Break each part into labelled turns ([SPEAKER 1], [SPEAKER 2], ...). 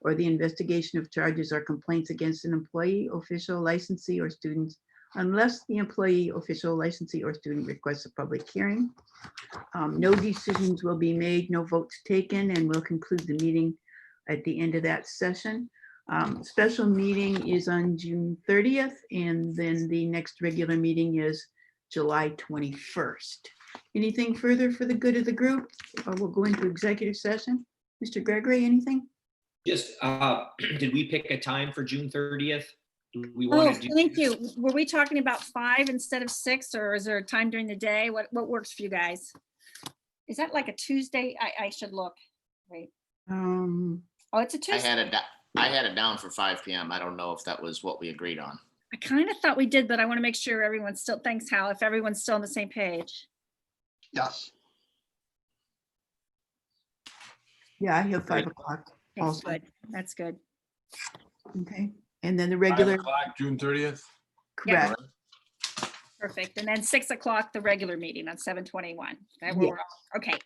[SPEAKER 1] or the investigation of charges or complaints against an employee, official, licensee, or student unless the employee, official, licensee, or student requests a public hearing. Um, No decisions will be made, no votes taken, and we'll conclude the meeting at the end of that session. Um, Special meeting is on June 30th, and then the next regular meeting is July 21st. Anything further for the good of the group? Or we'll go into executive session? Mr. Gregory, anything?
[SPEAKER 2] Just, uh, did we pick a time for June thirtieth? We
[SPEAKER 3] Oh,
[SPEAKER 2] want to do.
[SPEAKER 3] thank you. Were we talking about five instead of six, or is there a time during the day? What, what works for you guys? Is that like a Tuesday? I, I should look. Wait,
[SPEAKER 1] Um,
[SPEAKER 3] oh, it's a
[SPEAKER 4] I
[SPEAKER 3] Tuesday.
[SPEAKER 4] had it, da- I had it down for five PM. I don't know if that was what we agreed on.
[SPEAKER 3] I kind of thought we did, but I want to make sure everyone's still, thanks Hal, if everyone's still on the same page.
[SPEAKER 5] Yes.
[SPEAKER 1] Yeah, I have five
[SPEAKER 2] Right.
[SPEAKER 1] o'clock.
[SPEAKER 3] That's
[SPEAKER 1] Also.
[SPEAKER 3] good. That's good.
[SPEAKER 1] Okay, and then the
[SPEAKER 5] Five
[SPEAKER 1] regular,
[SPEAKER 5] o'clock, June thirtieth.
[SPEAKER 3] Yeah.
[SPEAKER 1] correct.
[SPEAKER 3] Perfect. And then six o'clock, the regular meeting on seven twenty-one. Okay,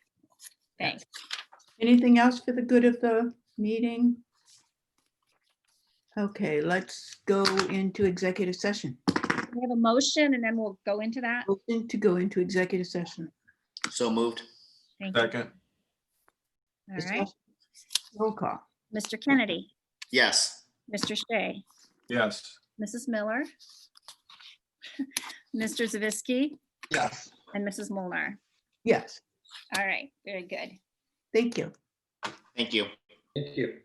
[SPEAKER 3] thanks.
[SPEAKER 1] Anything else for the good of the meeting? Okay, let's go into executive session.
[SPEAKER 3] We have a motion and then we'll go into that.
[SPEAKER 1] Motion to go into executive session.
[SPEAKER 4] So moved.
[SPEAKER 3] Thank you.
[SPEAKER 5] Second,
[SPEAKER 3] All right.
[SPEAKER 1] Roll call.
[SPEAKER 3] Mr. Kennedy,
[SPEAKER 4] Yes.
[SPEAKER 3] Mr. Shea,
[SPEAKER 5] yes.
[SPEAKER 3] Mrs. Miller, Mr. Zavisky,
[SPEAKER 5] Yes.
[SPEAKER 3] and Mrs. Molnar.
[SPEAKER 1] Yes,
[SPEAKER 3] All right, very good.
[SPEAKER 1] thank you.
[SPEAKER 4] Thank you.
[SPEAKER 2] Thank you.